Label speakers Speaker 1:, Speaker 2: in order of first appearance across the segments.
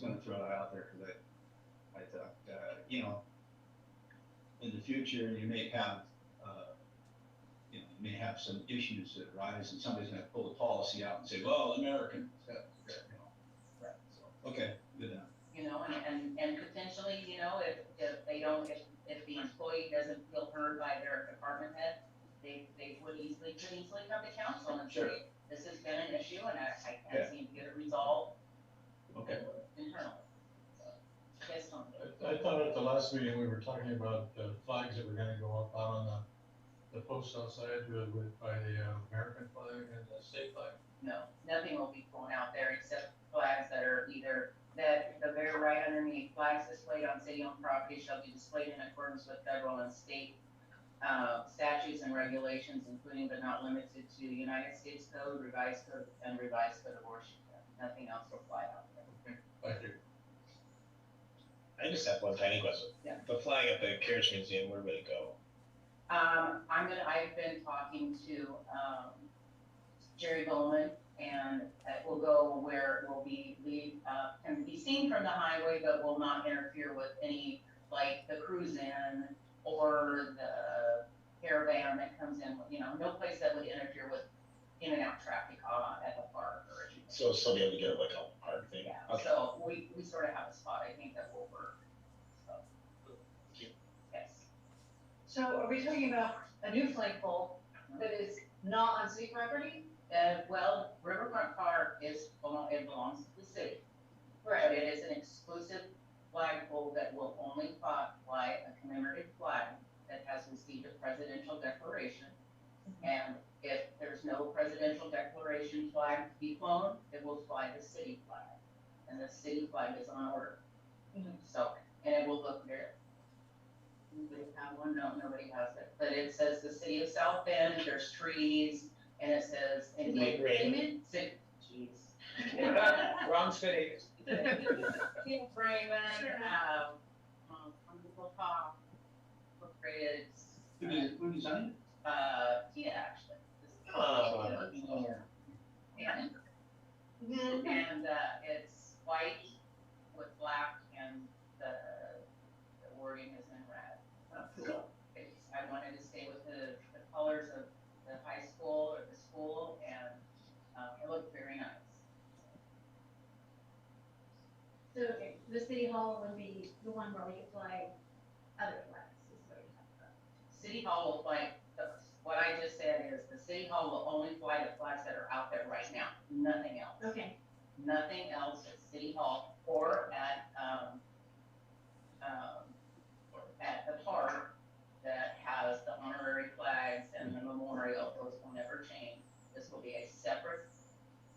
Speaker 1: gonna throw that out there because I, I thought, uh, you know, in the future, you may have, uh, you know, you may have some issues that arise and somebody's gonna pull a policy out and say, well, American, that, that, you know. Right. So, okay, good enough.
Speaker 2: you know, and, and, and potentially, you know, if, if they don't, if, if the employee doesn't feel heard by their department head, they, they would easily, could easily come to council and
Speaker 1: Sure.
Speaker 2: say, this has been an issue and I, I
Speaker 1: Yeah.
Speaker 2: can't seem to get it resolved
Speaker 1: Okay.
Speaker 2: internally. So, Just something.
Speaker 3: I, I thought at the last meeting, we were talking about the flags that were gonna go up out on the, the posts outside with, with, by the uh, American flag and the state flag.
Speaker 2: No, nothing will be thrown out there except flags that are either, that the very right underneath, flags displayed on city-owned property shall be displayed in accordance with federal and state uh, statutes and regulations, including but not limited to United States Code, revised code, and revised code of Washington. Nothing else will fly out there.
Speaker 3: Thank you.
Speaker 4: I just have one tiny question.
Speaker 2: Yeah.
Speaker 4: The flag at the Carriage Museum, where would it go?
Speaker 2: Um, I'm gonna, I've been talking to, um, Jerry Bowman, and it will go where it will be, we, uh, can be seen from the highway, but will not interfere with any, like, the cruise in or the caravan that comes in, you know, no place that would interfere with in and out traffic, uh, at the park or anything.
Speaker 4: So it'll still be able to get like a hard thing.
Speaker 2: Yeah,
Speaker 4: Okay.
Speaker 2: so we, we sort of have a spot, I think that will work, so.
Speaker 4: Thank you.
Speaker 2: Yes.
Speaker 5: So are we talking about a new flagpole that is not on city property?
Speaker 2: Uh, well, Riverfront Park is, belong- it belongs to the city. But it is an exclusive flagpole that will only fly, fly a commemorative flag that has received a presidential declaration. And if there's no presidential declaration flag to be flown, it will fly the city flag. And the city flag is on order.
Speaker 5: Mhm.
Speaker 2: So, and it will look very, nobody have one, no, nobody has it, but it says the city of South Bend, there's trees, and it says.
Speaker 4: Wait, wait.
Speaker 2: Ci- Jeez.
Speaker 4: Wrong city.
Speaker 2: King Raymond, um, um, Uncle Pop, incorporated,
Speaker 1: Who did, who designed it?
Speaker 2: uh, Kia actually.
Speaker 4: Oh.
Speaker 2: And, and, uh, it's white with black and the, the wording is in red.
Speaker 1: Cool.
Speaker 2: It's, I wanted to stay with the, the colors of the high school or the school and, um, it looked very nice.
Speaker 6: So okay, the city hall would be the one where we apply other flags, is what you're talking about.
Speaker 2: City Hall will fly, the- what I just said is the city hall will only fly the flags that are out there right now, nothing else.
Speaker 6: Okay,
Speaker 2: nothing else at City Hall or at, um, um, or at the park that has the honorary flags and the memorial, those will never change. This will be a separate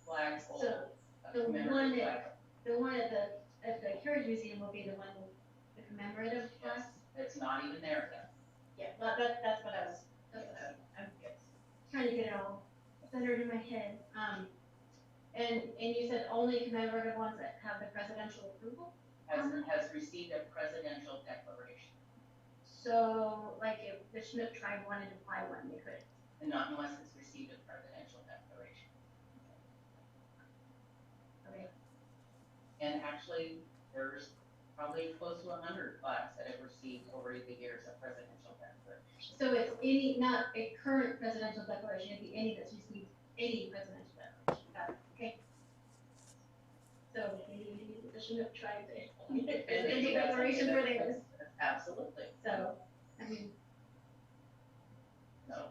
Speaker 2: flag pole,
Speaker 6: So,
Speaker 2: a
Speaker 6: the one
Speaker 2: commemorative flag.
Speaker 6: that- the one at the, at the Carriage Museum will be the one with the commemorative flag.
Speaker 2: Yes, It's not even there yet.
Speaker 6: Yeah, that, that, that's what I was, that's what I, I'm trying to get it all centered in my head. Um, and, and you said only commemorative ones that have the presidential approval?
Speaker 2: Has,
Speaker 6: Um,
Speaker 2: has received a presidential declaration,
Speaker 6: So like if the Schmidt tribe wanted to apply one, they could.
Speaker 2: and not unless it's received a presidential declaration.
Speaker 6: Okay.
Speaker 2: And actually, there's probably close to a hundred flags that have received over the years a presidential declaration.
Speaker 6: So it's any, not a current presidential declaration, it'd be any that's received any presidential declaration, got it, okay? So maybe we need the Chinook tribe to get a presidential declaration for theirs,
Speaker 2: Absolutely,
Speaker 6: so, I mean,
Speaker 2: no.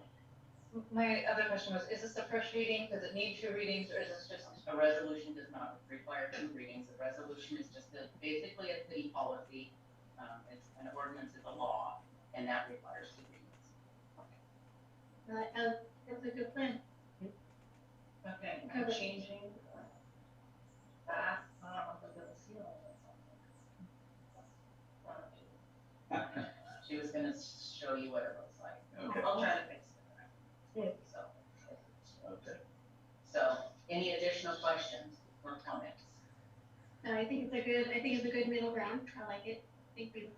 Speaker 5: My other question was, is this the first reading, does it need two readings, or is this just?
Speaker 2: A resolution does not require two readings. A resolution is just a, basically a city policy. Um, it's an ordinance, it's a law, and that requires two readings.
Speaker 6: uh, uh, that's a good plan.
Speaker 2: Okay,
Speaker 6: I'm
Speaker 2: changing. I don't know if I'm gonna seal it or something. She was gonna show you what it looks like.
Speaker 1: Okay.
Speaker 2: I'll try to fix it. So,
Speaker 4: Okay.
Speaker 2: so any additional questions or comments?
Speaker 6: No, I think it's a good, I think it's a good middle ground, I like it, I think we